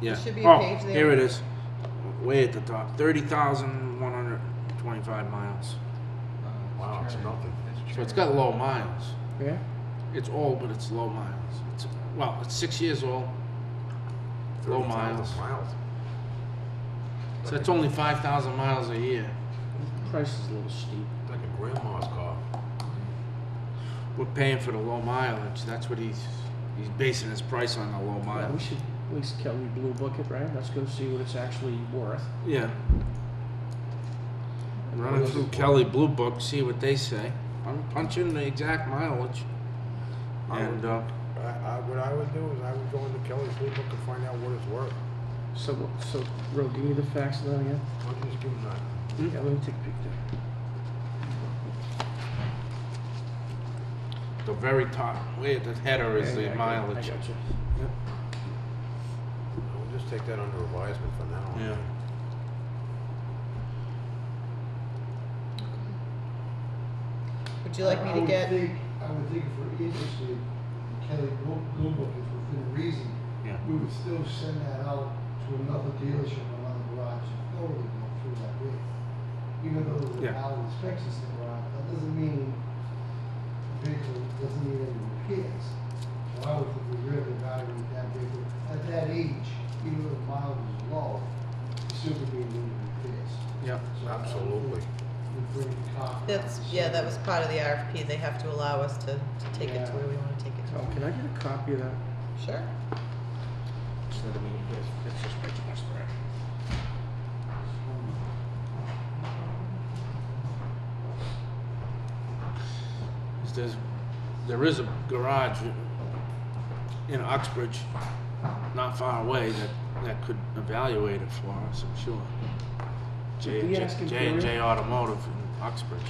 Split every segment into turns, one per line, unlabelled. Yeah.
should be a
oh,
page there.
Here it is. Way at the top. 30,125 miles.
Wow, it's nothing.
So it's got low miles.
Yeah?
It's old, but it's low miles. It's Well, it's six years old. Low
30,000
miles.
Miles.
So it's only 5,000 miles a year.
Price is a little steep.
Like a grandma's car.
We're paying for the low mileage. That's what he's he's basing his price on the low
Yeah, we
mileage.
should at least Kelly Blue Book it, right? Let's go see what it's actually worth.
Yeah. Run it through Kelly Blue Book, see what they say. I'm punching the exact mileage. And uh,
I, I, what I would do is I would go into Kelly's Blue Book and find out what it's worth.
So, what- so, Ro, give me the facts of that again.
Why don't you just give them that?
Yeah, let me take a picture.
the very top, way at the header is the
Yeah, yeah, I got-
mileage.
I got you.
We'll just take that under advisement for now.
Yeah.
Would you like
I-
me to
I
get?
would think, I would think if we're interested, Kelly Blue Blue Book is within reason,
Yeah.
we would still send that out to another dealership or another garage if they were to go through that way. Even though the
Yeah.
valid inspections that were out, that doesn't mean, the vehicle doesn't need any repairs. So I would think we really evaluate that vehicle at that age, even though the mileage is low, it still could be needed repairs.
Yeah.
So I would think
Absolutely.
we'd bring the car out
That's
and
yeah.
send
That
it.
was part of the RFP. They have to allow us to, to take it to where we want to take it
Oh, can I get a copy of that?
to. Sure.
There's, there is a garage in Oxbridge, not far away, that, that could evaluate it for us, I'm sure. J
Did we
J-
ask him
J
for
and J
it?
Automotive in Oxbridge.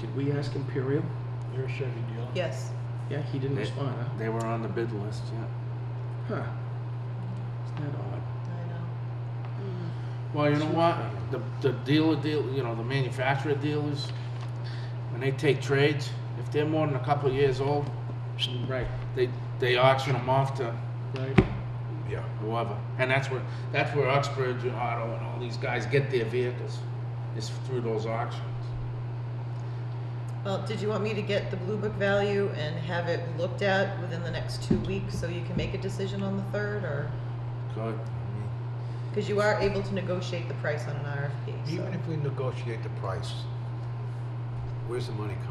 Did we ask Imperial?
You're a Chevy dealer.
Yes.
Yeah, he didn't
They-
respond, huh?
They were on the bid list, yeah.
Huh. Isn't that odd?
I know.
Well, you know what, the, the dealer deal, you know, the manufacturer dealers, when they take trades, if they're more than a couple of years old,
Right,
they, they auction them off to
right.
Yeah.
whoever. And that's where, that's where Uxbridge and Otto and all these guys get their vehicles, is through those auctions.
Well, did you want me to get the blue book value and have it looked at within the next two weeks so you can make a decision on the third, or
Good.
because you are able to negotiate the price on an RFP? So.
Even if we negotiate the price, where's the money coming from?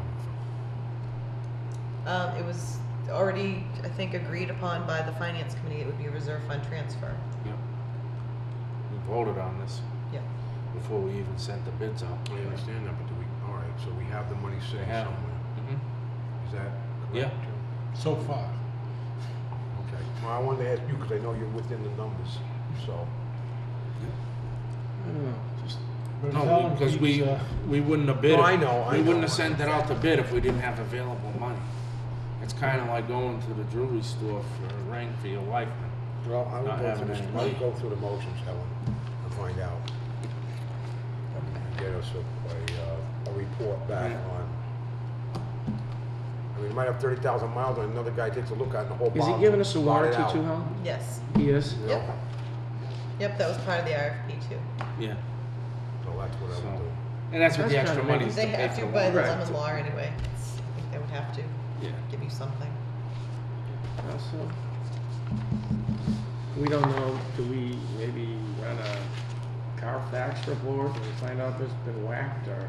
Um, it was already, I think, agreed upon by the finance committee. It would be a reserve fund transfer.
Yep. We voted on this
Yeah.
before we even sent the bids out.
I understand that, but do we, all right, so we have the money sitting
have it.
somewhere.
Mhm.
Is that correct?
Yeah.
Joe?
So far.
Okay. Well, I wanted to ask you because I know you're within the numbers, so.
I don't know, just,
But
No,
Fallon
because we,
keeps, uh,
we wouldn't have bid it.
No, I know, I
We
know.
wouldn't have sent it out to bid if we didn't have available money. It's kinda like going to the jewelry store for a ring for your wife.
Well, I
Not
would go
having
through, this-
any
I
money.
would go through the motions, Helen, and find out. And Get us a, a, uh, a report back
Yeah.
on. I mean, you might have thirty thousand miles and another guy takes a look at it and the whole
is
bottom.
he giving us a
blot it
warranty
out,
too, Helen?
Yes.
He is?
you know?
Yep. Yep. That was part of the RFP too.
Yeah.
So that's what I
So-
would do.
And that's what the
That's
extra
kinda
money is to
They
pay
have
for.
to
the
by the
warranty.
lemon law anyway. It's- I think they would have to
Yeah.
give you something.
Uh, so, we don't know, do we maybe run a Carfax report and find out there's been whacked or?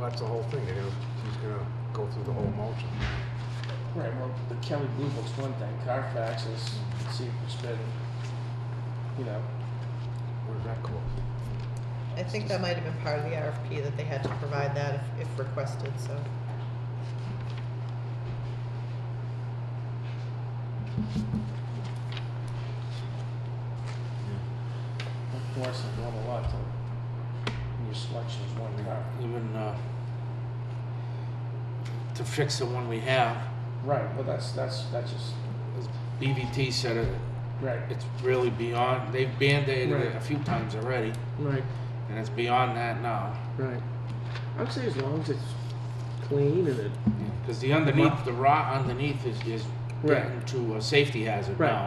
Well, that's the whole thing, they're gonna, he's gonna go through the whole motion.
Right, well, the Kelly Blue Book's one thing, Carfax is, see if it's been, you know,
What does that cost?
I think that might have been part of the RFP that they had to provide that if, if requested, so.
of course, it's not a lot to, when your selection's one car.
Even, uh, to fix the one we have,
Right, well, that's, that's, that's just,
as BVT said it,
right,
it's really beyond, they've band-aided it
Right.
a few times already,
right,
and it's beyond that now.
right. I'd say as long as it's clean and it
Because the underneath, the rot underneath is, is
Right.
getting to a safety hazard
Right.
now.